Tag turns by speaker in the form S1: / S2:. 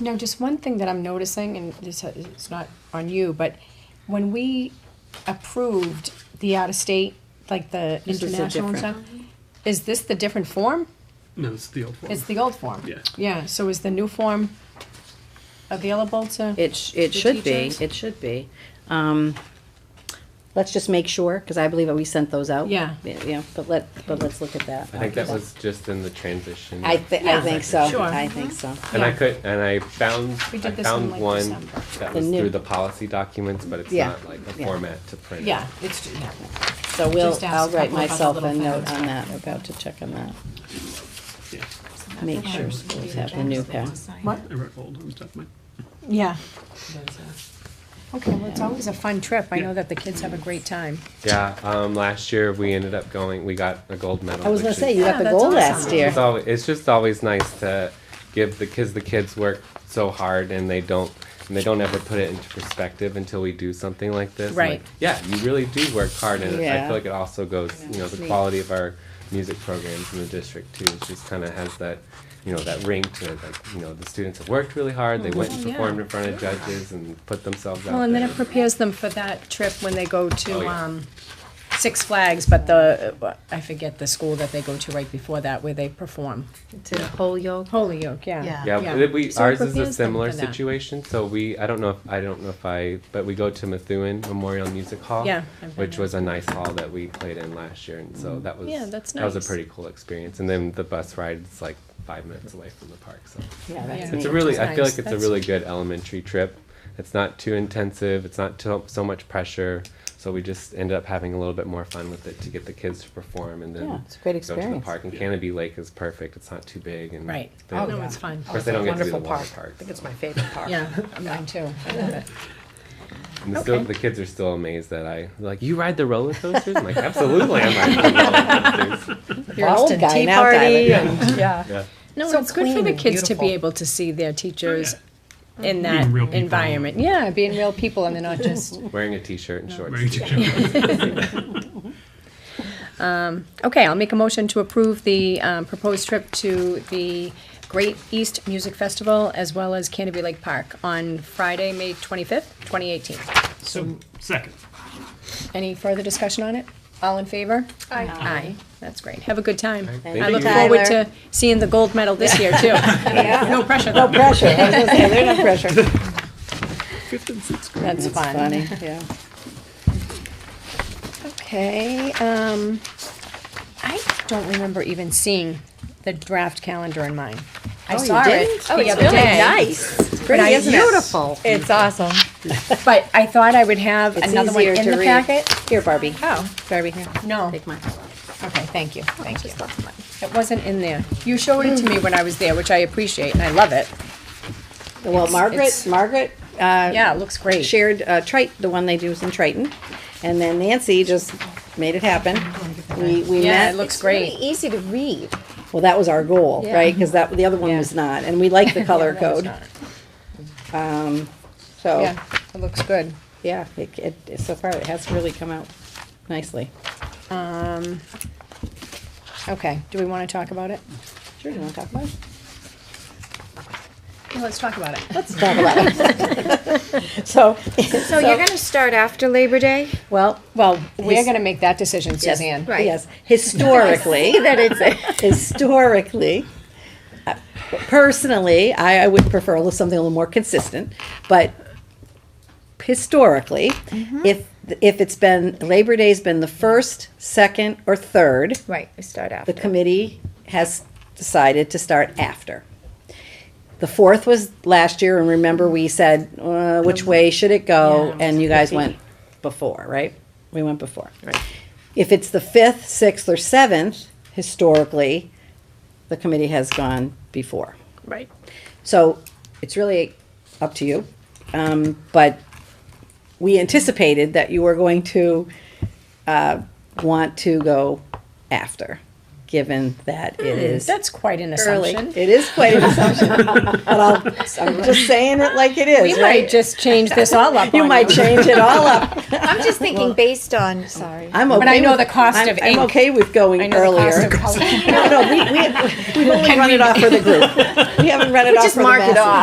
S1: Now, just one thing that I'm noticing, and this, it's not on you, but when we approved the out-of-state, like the
S2: This is the
S1: international and stuff, is this the different form?
S3: No, it's the old one.
S1: It's the old form?
S3: Yeah.
S1: Yeah, so is the new form available to?
S2: It, sh- it
S1: The
S2: should be,
S1: teachers?
S2: it should be. Um, let's just make sure, because I believe that we sent those out.
S1: Yeah.
S2: Yeah, but let, but let's look at that.
S4: I think that was just in the transition.
S2: I thi- I
S1: Yeah.
S2: think so,
S1: Sure. Mm-hmm.
S2: I think so.
S4: And I
S1: Yeah.
S4: could, and I found,
S1: We
S4: I
S1: did this in
S4: found
S1: like
S4: one
S1: December.
S4: that
S2: The
S4: was
S2: new-
S4: through the policy documents, but it's
S2: Yeah.
S4: not like a
S2: Yeah.
S4: format to print.
S1: Yeah, it's, yeah.
S2: So we'll,
S1: Just ask
S2: I'll
S1: a
S2: write
S1: couple of us a
S2: myself a
S1: little
S2: note
S1: favor.
S2: on that, about to check on that.
S3: Yeah,
S2: Make sure schools have the new pack.
S1: What?
S3: I wrote old ones, definitely.
S1: Yeah. Okay, well, it's always a fun trip. I
S3: Yeah.
S1: know that the kids have a great time.
S4: Yeah, um, last year we ended up going, we got a gold medal.
S2: I was gonna
S4: which
S2: say,
S4: is-
S2: you got
S1: Yeah,
S2: the
S1: that's
S2: goal last
S1: awesome.
S2: year.
S4: It's always, it's just always nice to give the kids, the kids work so hard and they don't, and they don't ever put it into perspective until we do something like this. I'm like,
S1: Right.
S4: Yeah, you really do work hard and I
S2: Yeah.
S4: feel like it also goes, you know, the
S2: Sweet.
S4: quality of our music programs in the district too, it just kinda has that, you know, that ring to it, like, you know, the students have worked really hard, they went and
S1: Mhm. Yeah.
S4: performed in front of judges and put themselves out there.
S1: Well, and then it prepares them for that trip when they go
S4: Oh,
S1: to,
S4: yeah.
S1: um, Six Flags, but the, uh, I forget the school that they go to right before that where they perform.
S2: To Holyoke.
S1: Holyoke, yeah.
S5: Yeah.
S4: Yeah, but we,
S1: So it
S4: ours is
S1: prepares
S4: a
S1: them
S4: similar
S1: for that.
S4: situation, so we, I don't know, if I don't know if I, but we go to Methuen Memorial Music Hall.
S1: Yeah, I've been
S4: Which
S1: there. Mm.
S4: was a nice hall that we played in last year, and so that was.
S1: Yeah, that's
S4: That was
S1: nice.
S4: a pretty cool experience, and then the bus ride is like five minutes away from the park, so.
S2: Yeah, that's
S1: Yeah.
S4: It's
S2: neat.
S4: a really,
S1: is
S4: I feel
S1: nice.
S4: like it's a
S1: That's-
S4: really good elementary trip. It's not too intensive, it's not too, so much pressure, so we just ended up having a little bit more fun with it to get the kids to perform and then.
S2: Yeah, it's a great
S4: Go to the
S2: experience.
S4: park, and Canopy Lake is perfect, it's not too big and.
S1: Right.
S4: they-
S1: Oh, no, it's fun.
S4: Of course, they don't get to do the
S5: Wonderful
S4: water
S5: park. I
S4: park.
S5: think it's my favorite part.
S1: Yeah, mine too. I love it.
S4: And the, still,
S1: Okay.
S4: the kids are still amazed that I like you ride the roller coasters. I'm like, absolutely, I ride the roller coasters.
S1: You're
S2: Old
S1: instant
S2: guy
S1: tea
S2: now,
S1: party
S2: Tyler.
S5: Yeah. Yeah.
S4: Yeah,
S1: No,
S5: So
S1: it's good for
S5: clean
S1: the
S5: and
S1: kids to be
S5: beautiful.
S1: able to see their
S4: Oh,
S1: teachers in that
S3: Being real people.
S1: environment. Yeah, being real people and they're not just.
S4: wearing a t-shirt and shorts.
S3: Wearing t-shirt.
S1: Okay, I'll make a motion to approve the um, proposed trip to the Great East Music Festival as well as Canterbury Lake Park on Friday, May 25th, 2018.
S3: So, second.
S1: Any further discussion on it? All in favor? Aye. Aye, that's great. Have a good time.
S4: Thank
S1: I look
S4: you.
S1: forward
S2: Tyler.
S1: to seeing the gold medal this year, too. No pressure, though.
S2: Pressure, I was gonna say, they're not pressure.
S3: Fifth and sixth grade.
S1: That's fun.
S2: Funny, yeah.
S1: Okay, um, I don't remember even seeing the draft calendar in mine. I
S2: Oh, you
S1: saw it
S2: didn't?
S1: the other day.
S2: It's
S1: Nice,
S2: pretty, isn't it?
S5: Beautiful.
S1: It's awesome. But I thought I would have
S2: It's
S1: another one
S2: easier
S1: in
S2: to
S1: the
S2: read.
S1: packet.
S2: Here, Barbie.
S1: Oh,
S2: Barbie, here.
S1: no.
S2: Take mine.
S1: Okay, thank you, thank you. It wasn't in there. You showed it to me when I was there, which I appreciate and I love it.
S2: Well, Margaret,
S1: it's-
S2: Margaret, uh,
S1: Yeah, it looks great.
S2: shared uh, Trite, the one they do is in Triton, and then Nancy just made it happen. We we
S1: Yeah,
S2: met.
S1: it looks
S6: Really
S1: great.
S6: easy to read.
S2: well, that was our goal,
S6: Yeah.
S2: right? Because that the other one was not, and we like the color
S1: Yeah, that was
S2: code. Oh.
S1: not-
S2: So
S1: Yeah,
S2: yeah,
S1: it looks good.
S2: it, it, it- so far it has really come out nicely.
S1: Okay, do we want to talk about it?
S2: Sure, you want to talk about it?
S1: Yeah, Let's talk about it.
S2: Let's talk about it. so,
S6: So, you're going to start after Labor Day?
S2: well,
S1: Well, we're
S2: His-
S1: gonna make that decision,
S2: yes,
S1: Suzanne.
S6: Right.
S2: Yes, historically.
S6: That it's a,
S2: historically, uh, personally, I, I would prefer a little, something a little more consistent, but historically,
S6: Mm-hmm.
S2: if, if it's been, Labor Day's been the first, second, or third,
S6: right. We start
S2: the
S6: after.
S2: committee has decided to start after. The fourth was last year, and remember, we said, uh, which way should it go? And you guys went before, right? We went before. Right. If it's the fifth, sixth, or seventh, historically, the committee has gone before.
S1: Right.
S2: So it's really up to you. Um, but we anticipated that you were going to uh, want to go after, given that it is
S1: That's quite an
S2: Hmm, early.
S1: assumption.
S2: It is quite an assumption, but I'll, I'm just saying it like it is.
S1: We
S2: right?
S1: might just change this all up
S2: you
S1: on
S2: might change it all up.
S6: I'm just thinking based on. Sorry.
S2: I'm okay.
S1: But I know the
S2: with-
S1: cost
S2: I'm-
S1: of
S2: I'm
S1: ink.
S2: okay with going
S1: I know the
S2: earlier.
S1: cost of color.
S2: no, no, we we we only run it off for the group. We haven't run it off
S6: just
S2: for the
S6: mark it
S2: masses.
S6: off.